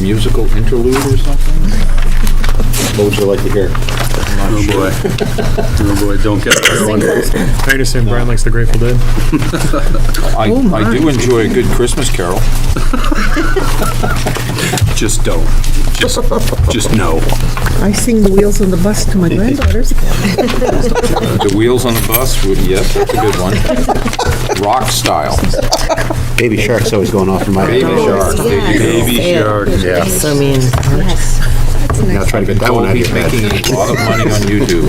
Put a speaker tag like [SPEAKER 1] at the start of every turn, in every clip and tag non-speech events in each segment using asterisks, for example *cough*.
[SPEAKER 1] musical interlude or something? What would you like to hear?
[SPEAKER 2] Oh, boy. Oh, boy, don't get that one.
[SPEAKER 3] I understand Brian likes the Grateful Dead.
[SPEAKER 4] I, I do enjoy a good Christmas carol.
[SPEAKER 2] Just don't. Just, just no.
[SPEAKER 5] I sing the wheels on the bus to
[SPEAKER 4] *laughs*
[SPEAKER 5] my granddaughters.
[SPEAKER 4] The Wheels on the Bus, would- yes, that's a good one. Rock style.
[SPEAKER 1] Baby Shark's always going off in my
[SPEAKER 4] Baby
[SPEAKER 1] head.
[SPEAKER 4] Shark. there you
[SPEAKER 2] Baby shark, yeah.
[SPEAKER 6] I mean,
[SPEAKER 1] Now try to get that
[SPEAKER 4] go.
[SPEAKER 1] one out of your
[SPEAKER 4] Well, he's
[SPEAKER 1] head.
[SPEAKER 4] making a lot of money on YouTube.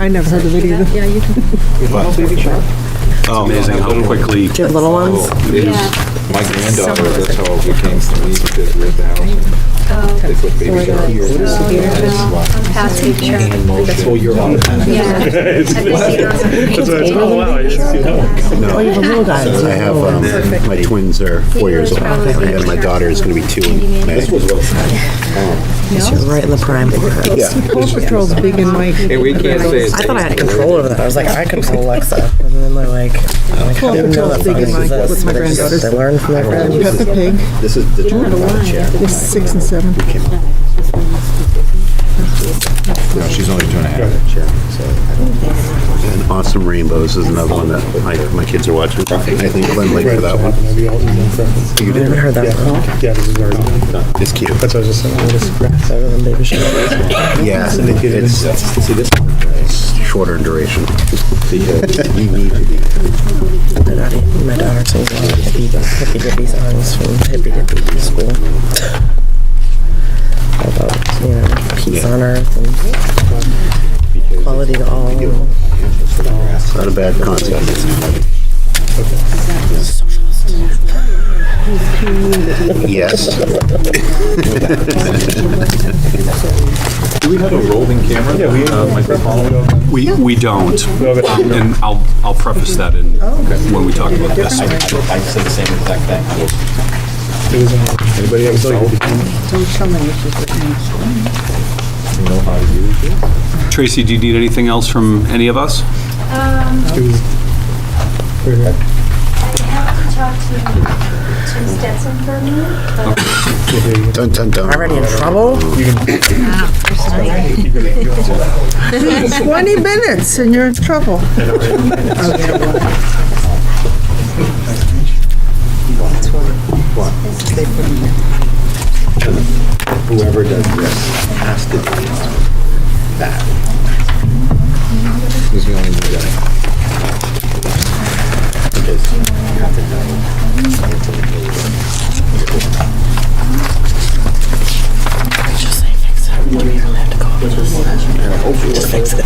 [SPEAKER 5] I never heard of it either.
[SPEAKER 6] yeah, you can
[SPEAKER 2] Amazing how Oh, quickly.
[SPEAKER 6] do little ones.
[SPEAKER 4] Oh, My granddaughter, that's how we came to leave, because we had the house. They put Baby Shark here.
[SPEAKER 7] Past picture.
[SPEAKER 1] Oh, you're
[SPEAKER 7] Um,
[SPEAKER 1] on it.
[SPEAKER 3] Oh, wow, you didn't see that one.
[SPEAKER 5] Oh, you have a little guy.
[SPEAKER 1] I have, um, my twins are four years old, and my daughter is gonna be two in May.
[SPEAKER 6] You're right in the prime.
[SPEAKER 1] Yeah.
[SPEAKER 5] Paw Patrol's big and Mike.
[SPEAKER 4] And we can't say it's.
[SPEAKER 6] I thought I had control over that. I was like, I control Alexa. *laughs* And then they're like, I'm like,
[SPEAKER 5] Paw
[SPEAKER 6] how do you know
[SPEAKER 5] Patrol's
[SPEAKER 6] that?
[SPEAKER 5] big and Mike with my
[SPEAKER 6] They just-
[SPEAKER 5] granddaughters.
[SPEAKER 6] They learn from their friends.
[SPEAKER 5] Peppa Pig,
[SPEAKER 1] This is the turn of the chair.
[SPEAKER 5] is six and seven.
[SPEAKER 4] No, she's only two and a half.
[SPEAKER 1] And Awesome Rainbows is another one that my, my kids are watching. I think Glenn Lake for that one.
[SPEAKER 6] I've never heard that before.
[SPEAKER 3] Yeah, this is very good.
[SPEAKER 1] It's cute.
[SPEAKER 3] That's what I was just saying.
[SPEAKER 6] Better than Baby Shark.
[SPEAKER 1] Yeah, and it- it's, see this one, uh, E it's shorter in *laughs* duration. You need to be.
[SPEAKER 6] My daughter- My daughter sings a lot of hippie, hippie dippy songs from hippie dippy school. About, you know, peace on earth and quality to all.
[SPEAKER 1] It's not a bad concept. Yes.
[SPEAKER 2] Do we have a rolling camera? Yeah,
[SPEAKER 4] Uh,
[SPEAKER 2] we have. We, we don't. And I'll, I'll preface that in, when we talk about this.
[SPEAKER 1] Oh, I say the same exact thing.
[SPEAKER 4] uh,
[SPEAKER 3] Anybody have a cell?
[SPEAKER 2] Tracy, do you need anything else from any of us?
[SPEAKER 7] have to talk to Tim Stetson for a minute, but
[SPEAKER 1] Dun, dun, dun.
[SPEAKER 6] Already in trouble?
[SPEAKER 5] 20 minutes and you're in trouble.
[SPEAKER 1] Whoever does this has to do that. He's the only new guy. Because you have to know.
[SPEAKER 6] Just say fix it. We don't have to go over this. Just fix it.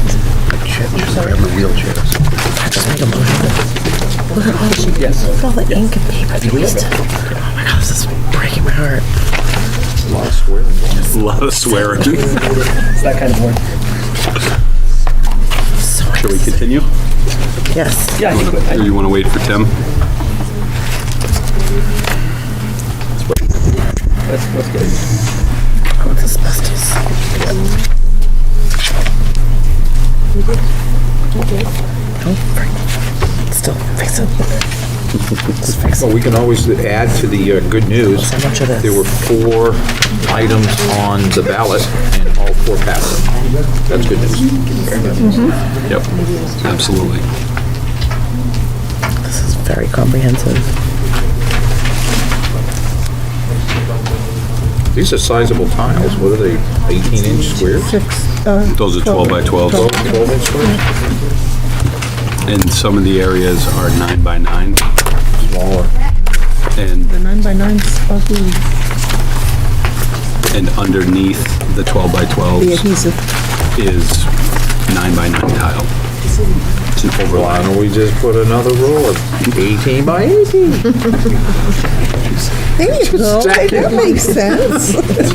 [SPEAKER 1] Shit, just grab the wheelchairs.
[SPEAKER 6] Just make a motion. Look at all the, look at all the ink and paper they used to. Oh my God, this is breaking my heart.
[SPEAKER 2] A lot of
[SPEAKER 1] *laughs*
[SPEAKER 2] swearing. Shall
[SPEAKER 6] So much.
[SPEAKER 2] we continue?
[SPEAKER 6] Yes.
[SPEAKER 2] Or you want to wait for Tim?
[SPEAKER 6] I want this asbestos. Don't freak. Still fix it. Just fix it.
[SPEAKER 4] Well, we can always add to the uh, good news.
[SPEAKER 6] So much of this.
[SPEAKER 4] There were four items on the ballot, and all four passed. That's good news.
[SPEAKER 2] Yep, Mm-hmm. absolutely.
[SPEAKER 6] This is very comprehensive.
[SPEAKER 4] These are sizable tiles. What are they, 18-inch squares?
[SPEAKER 5] Six, uh,
[SPEAKER 2] Those are 12 by 12s,
[SPEAKER 4] 12-inch squares?
[SPEAKER 2] Mm-hmm. and some of the areas are 9 by 9,
[SPEAKER 4] Smaller.
[SPEAKER 2] and
[SPEAKER 5] the nine by nine's ugly,
[SPEAKER 2] and underneath the 12 by
[SPEAKER 5] the
[SPEAKER 2] 12s
[SPEAKER 5] adhesive.
[SPEAKER 2] is 9 by 9 tile. It's an
[SPEAKER 4] Why
[SPEAKER 2] overlap.
[SPEAKER 4] don't we just put another row of 18 by 18?
[SPEAKER 5] There you go. That makes sense.